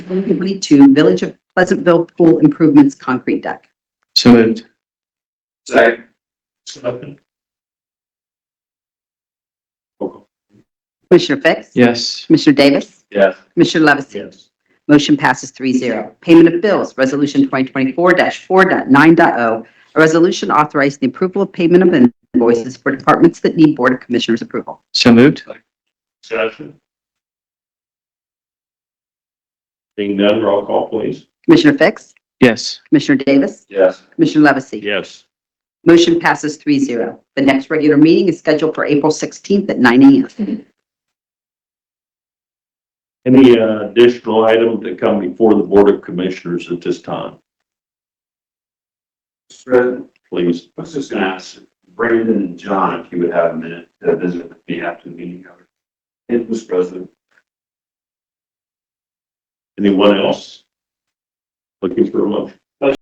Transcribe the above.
favorably to Village of Pleasantville Pool Improvements Concrete Deck. So moved. Second. Commissioner Fix? Yes. Commissioner Davis? Yes. Commissioner Levesey? Yes. Motion passes 3-0. Payment of bills, Resolution 2024-4.9.o, oh. a resolution authorizing the approval of payment of invoices for departments that need Board of Commissioners approval. So moved. Discussion. Being done, roll call please. Commissioner Fix? Yes. Commissioner Davis? Yes. Commissioner Levesey? Yes. Motion passes 3-0. The next regular meeting is scheduled for April 16th at 9 a.m. Any uh, additional items that come before the Board of Commissioners at this time? President, Please. I was just gonna ask Brandon and John if you would have a minute to visit with me after the meeting. It was President. Anyone else? Looking for a motion?